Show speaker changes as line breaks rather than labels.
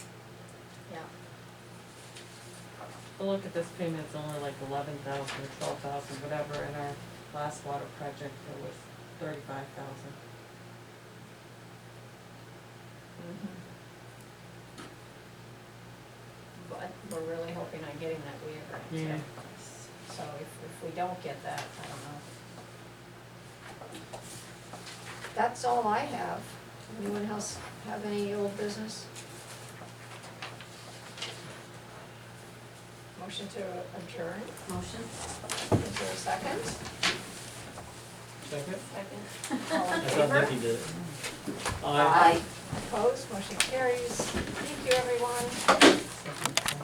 a look at this payment, it's only like eleven thousand, twelve thousand, whatever, in our last water project, it was thirty-five thousand.
Mm-hmm. But we're really hoping on getting that WIA grant too. So if, if we don't get that, I don't know. That's all I have. Anyone else have any old business? Motion to adjourn,
Motion?
is there a second?
Second?
All in
I thought
favor?
Nikki did it.
Opposed, motion carries. Thank you, everyone.